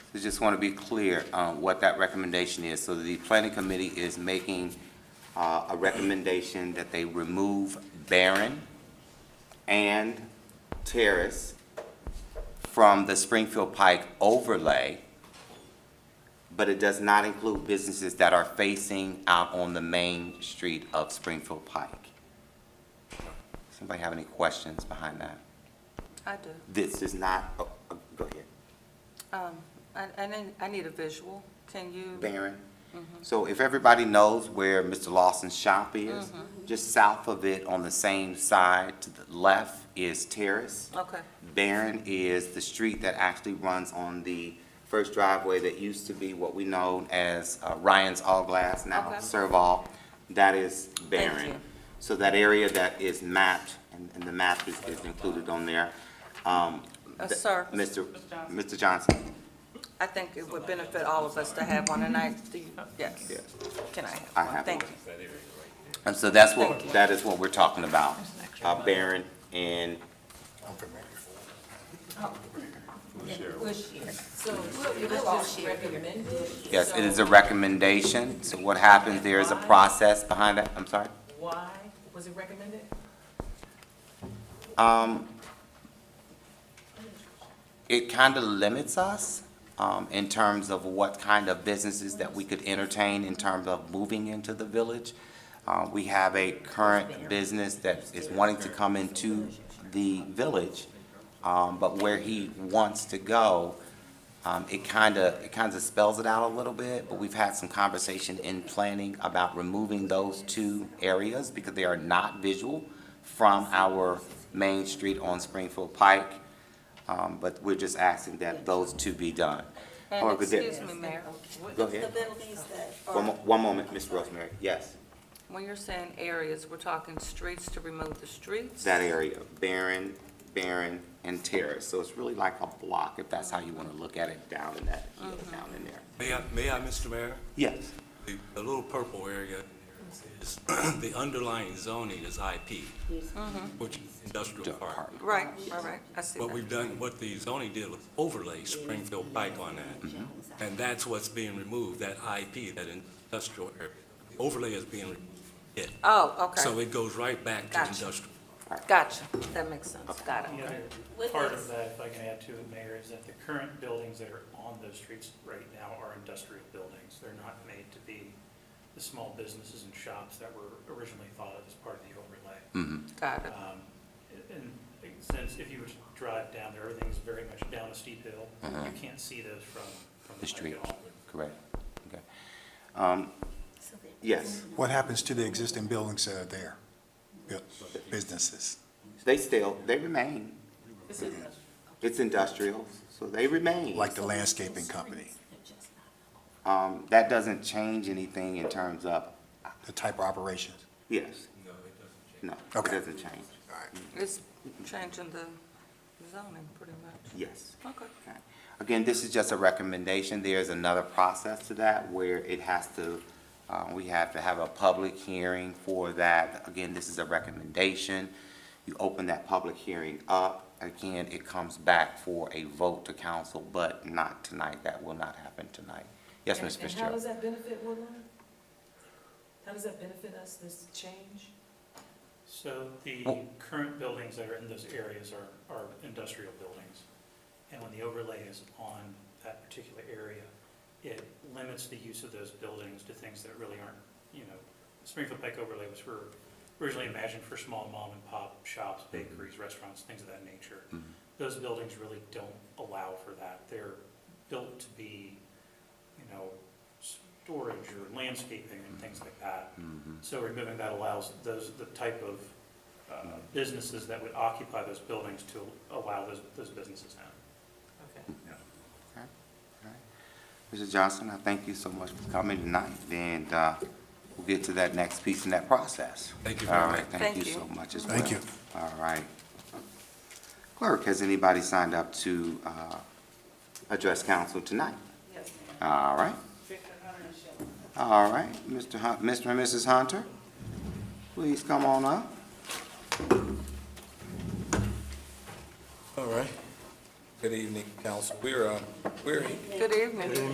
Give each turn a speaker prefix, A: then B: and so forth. A: So just want to be clear on what that recommendation is. So the planning committee is making uh, a recommendation that they remove Barron and Terrace from the Springfield Pike overlay, but it does not include businesses that are facing out on the main street of Springfield Pike. Somebody have any questions behind that?
B: I do.
A: This is not, oh, oh, go ahead.
B: Um, I, I need, I need a visual. Can you?
A: Barron.
B: Mm-hmm.
A: So if everybody knows where Mr. Lawson's shop is,
B: Mm-hmm.
A: just south of it on the same side, to the left is Terrace.
B: Okay,
A: Barron is the street that actually runs on the first driveway that used to be what we know as uh, Ryan's All Glass, now
B: Okay.
A: Serval. That is Barron.
B: you.
A: So that area that is mapped, and, and the map is, is included on there. Um,
B: Uh,
A: th-
B: sir.
A: Mr. Mr. Johnson.
B: I think it would benefit all of us to have one, and I, do you, yes.
A: Yes.
B: Can I have
A: I
B: one?
A: have
B: Thank
A: one.
B: you.
A: And so that's what,
B: Thank
A: that is what we're talking about, uh, Barron and,
C: We'll share. So we'll, we'll all share here.
A: yes, it is a recommendation. So what happens, there is a process behind that, I'm sorry?
C: Why was it recommended?
A: Um, it kind of limits us, um, in terms of what kind of businesses that we could entertain in terms of moving into the village. Uh, we have a current business that is wanting to come into the village, um, but where he wants to go, um, it kind of, it kind of spells it out a little bit, but we've had some conversation in planning about removing those two areas because they are not visual from our main street on Springfield Pike. Um, but we're just asking that those two be done.
B: And
A: However, there-
B: excuse me, uh, Mayor,
A: Go ahead. One, mo- one moment, Ms. Rosemary, yes,
B: when you're saying areas, we're talking streets to remove the streets?
A: that area, Barron, Barron, and Terrace, so it's really like a block, if that's how you wanna look at it, down in that, hill,
B: Mm-hmm.
A: down in there.
D: May I, may I, Mr. Mayor?
A: Yes.
D: The, the little purple area is, the underlying zoning is IP, which is industrial park.
B: Right, all right, I see
D: What
B: that.
D: we've done, what the zoning did was overlay Springfield Pike on that. And that's what's being removed, that IP, that industrial area. Overlay is being, removed.
B: Oh,
D: so
B: okay,
D: it goes right back to
B: Gotcha.
D: industrial.
B: gotcha, that makes sense, got
E: The
B: it.
E: other
C: With
E: part
C: us.
E: of that, if I can add to it, Mayor, is that the current buildings that are on those streets right now are industrial buildings. They're not made to be the small businesses and shops that were originally thought of as part of the overlay.
A: Hmm.
B: Got it,
E: Um, And since if you were to drive down there, everything's very much down a steep hill. You can't see those from, from
A: The
E: the
A: street,
E: street at all.
A: correct, okay. Um, Yes,
F: What happens to the existing buildings that are there, Bu- businesses?
A: they still, they remain, it's industrial, so they remain.
F: Like the landscaping company,
A: Um, that doesn't change anything in terms of,
F: the type of operations?
A: yes,
D: No, it doesn't
A: no, it
F: Okay.
A: doesn't change,
F: All right.
B: it's changing the zoning pretty much,
A: yes.
B: okay.
A: Okay. Again, this is just a recommendation. There is another process to that where it has to, uh, we have to have a public hearing for that. Again, this is a recommendation. You open that public hearing up. Again, it comes back for a vote to council, but not tonight. That will not happen tonight. Yes, Ms.
C: And how
A: Fitzgerald?
C: does that benefit Woodline? How does that benefit us, this change?
E: So the
A: Well-
E: current buildings that are in those areas are, are industrial buildings. And when the overlay is on that particular area, it limits the use of those buildings to things that really aren't, you know, Springfield Pike overlay was for, originally imagined for small mom and pop shops, bakeries, restaurants, things of that nature. Those buildings really don't allow for that. They're built to be, you know, storage or landscaping and things like that. So removing that allows those, the type of uh, businesses that would occupy those buildings to allow those, those businesses in.
C: Okay.
A: Mr. Johnson, I thank you so much for coming tonight, and, uh, we'll get to that next piece in that process.
D: Thank you very
A: All right,
D: much.
A: Thank
B: Thank
A: you
B: you.
A: so much as well.
F: Thank you.
A: All right. Clerk, has anybody signed up to, uh, address council tonight?
C: Yes,
A: All right,
C: Victor Hunter and Shelley.
A: all right, Mr. Hun, Mr. and Mrs. Hunter, please come on up.
G: All right.
D: Good evening, council. We're, uh, we're
B: Good evening.